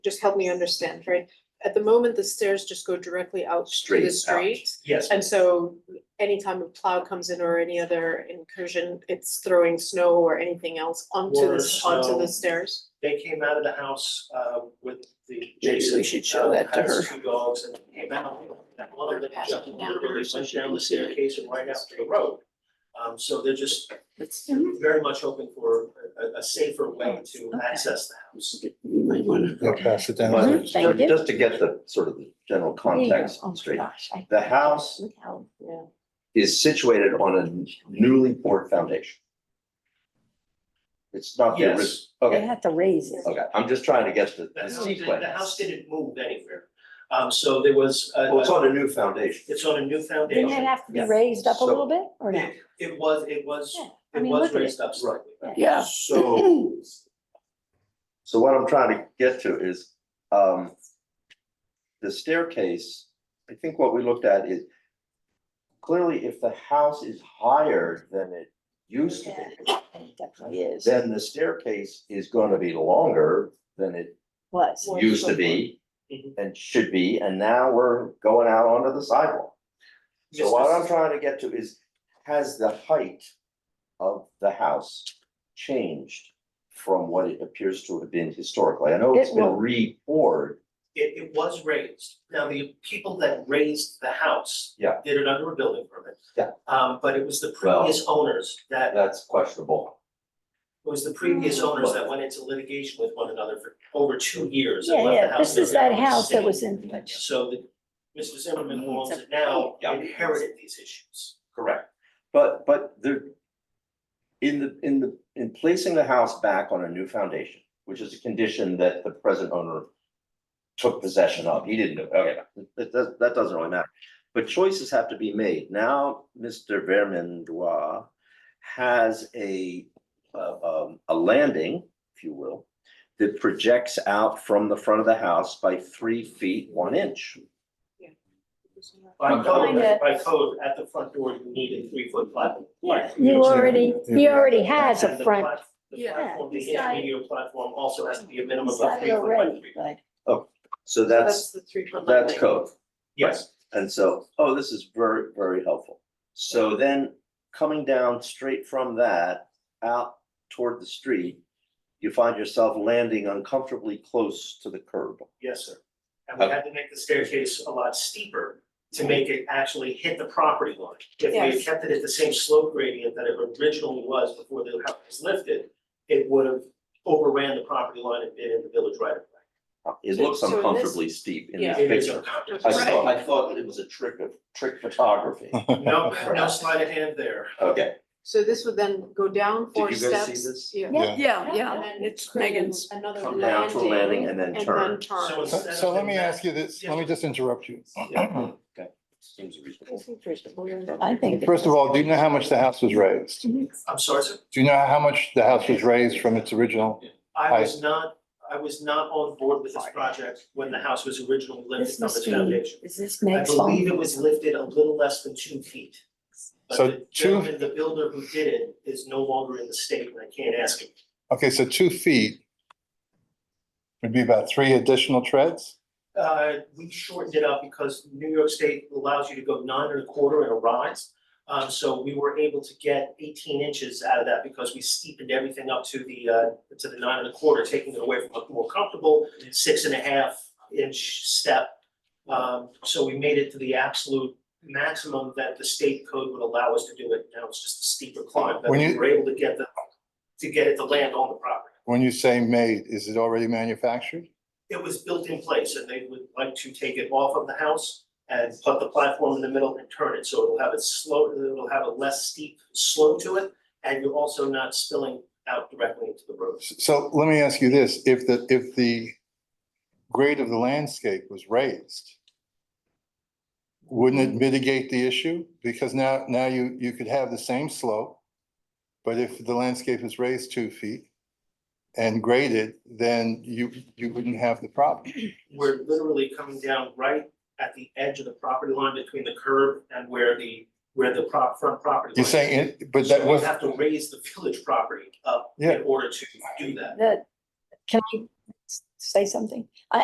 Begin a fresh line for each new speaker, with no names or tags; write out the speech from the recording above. just help me understand, right? At the moment, the stairs just go directly out to the
Straight out.
street.
Yes,
And so anytime a plow comes in or any other incursion, it's throwing snow or anything else onto
Or
the, onto
snow.
the stairs?
they came out of the house uh with the
Maybe we
Jason.
should show
uh,
that to
has
her.
Two dogs and came out. That mother that
Pass
jumped
it
over
down,
really
so
went
she
down
can
the
see it.
staircase and right out to the road. Um so they're just
Let's, you
very much hoping for a a safer way to
Oh, Okay.
access the house.
might wanna.
I'll pass it down.
Mhm,
But
thank
ju-
you.
just to get the sort of the general context
Oh,
straight,
gosh, I-
the house
Look how-
Yeah.
is situated on a newly poured foundation. It's not the original,
Yes,
They
okay,
had to raise it.
okay, I'm just trying to get the
the
the
house, didn't- the house
sequence.
didn't move anywhere. Um so there was a
Well, it's on a new foundation.
it's on a new foundation.
Didn't it have to be
Yeah.
raised up a
So-
little bit or no?
It it was, it was,
Yeah, I
it
mean,
was
look at it.
raised up slightly.
Yeah.
So. So what I'm trying to get to is, um. The staircase, I think what we looked at is. Clearly, if the house is higher than it used to
Yeah,
be.
It definitely is,
then the staircase is gonna be longer than it
was.
Well,
used to
sure.
be
Mhm.
and should be, and now we're going out onto the sidewalk. So
Yes,
what
this
I'm
is-
trying to get to is, has the height of the house changed from what it appears to have been historically? I know it's
It
been
will.
re-poured,
It, it was raised. Now, the people that raised the house.
Yeah.
Did it under a building permit.
Yeah.
Um, but it was the
Well-
previous owners that, it
that's questionable.
was the previous
Mm,
owners that went into litigation with one another for over two years and
Yeah,
left the
yeah,
house.
this
in a
is that
very bad
house that
state.
was in,
So the, Mr. Zimmerman who owns it
It's
now
a-
Yeah.
inherited these issues.
Correct. But, but the, in the, in the, in placing the house back on a new foundation, which is a condition that the present owner took possession of, he didn't do, okay, that, that, that doesn't really matter. But choices have to be made. Now, Mr. Vermandois has a, uh, um, a landing, if you will, that projects out from the front of the house by three feet, one inch.
By
Well,
code,
kinda-
by code, at the front door, you need a three foot platform.
yeah, you already, he already has
And
a
the
front.
plat- The
Yeah,
platform,
he's
the
got it.
intermediate platform also has to be a minimum of
He's
three foot
got
by
it
three.
already,
feet.
but
So
That's
that's,
the three foot line.
that's code.
Yes.
And so, oh, this is very, very helpful. So then coming down straight from that out toward the street, you find yourself landing uncomfortably close to the curb.
Yes, sir. And we had to make the staircase a lot steeper to make it actually hit the property line. If we had
Yes.
kept it at the same slope gradient that it originally was before the house was lifted, it would have overran the property line and been in the village right of way.
It
So-
looks
so in this-
uncomfortably steep in this
Yeah.
It is
picture.
uncomfortable.
I thought, I thought it was a trick of, trick photography.
No, no sleight of hand there.
Okay,
So this would then go down four
you
steps.
guys see this?
Yeah.
Yeah.
Yeah,
And
yeah,
then
it's
create an-
Megan's.
Another
come down to a landing
landing
and then
and
turn.
then turn.
So
So,
instead
so
of
let me
doing
ask you this, let me just interrupt you.
Yeah. okay, seems reasonable.
I think.
First of all, do you know how much the house was raised?
I'm sorry, sir.
Do you know how much the house was raised from its original?
I was not, I was not on board with this project when the house was originally
This
lifted on
must
its
be,
foundation.
is this
I
Meg's phone?
believe it was lifted a little less than two feet. But
So
the
two-
gentleman, The builder who did it is no longer in the state and I can't ask him.
Okay, so two feet would be about three additional treads?
Uh, we shortened it up because New York State allows you to go nine and a quarter and a rise. Um, so we were able to get eighteen inches out of that because we steepened everything up to the, uh, to the nine and a quarter, taking it away from a more comfortable six and a half inch step. Um, so we made it to the absolute maximum that the state code would allow us to do it. Now it's just a steeper climb, but
When
we
you-
were able to get the, to get it to land on the property.
When you say made, is it already manufactured?
it was built in place and they would like to take it off of the house and put the platform in the middle and turn it, so it'll have a slow, it'll have a less steep slope to it. And you're also not spilling out directly into the road.
S- So let me ask you this, if the, if the grade of the landscape was raised, wouldn't it mitigate the issue? Because now, now you, you could have the same slope, but if the landscape is raised two feet and graded, then you, you wouldn't have the problem.
We're literally coming down right at the edge of the property line between the curb and where the, where the prop, front property line.
You're
is.
saying, it, but
So
that
we
was,
have to raise the village property up
Yeah.
in order to do that.
The, can I say something?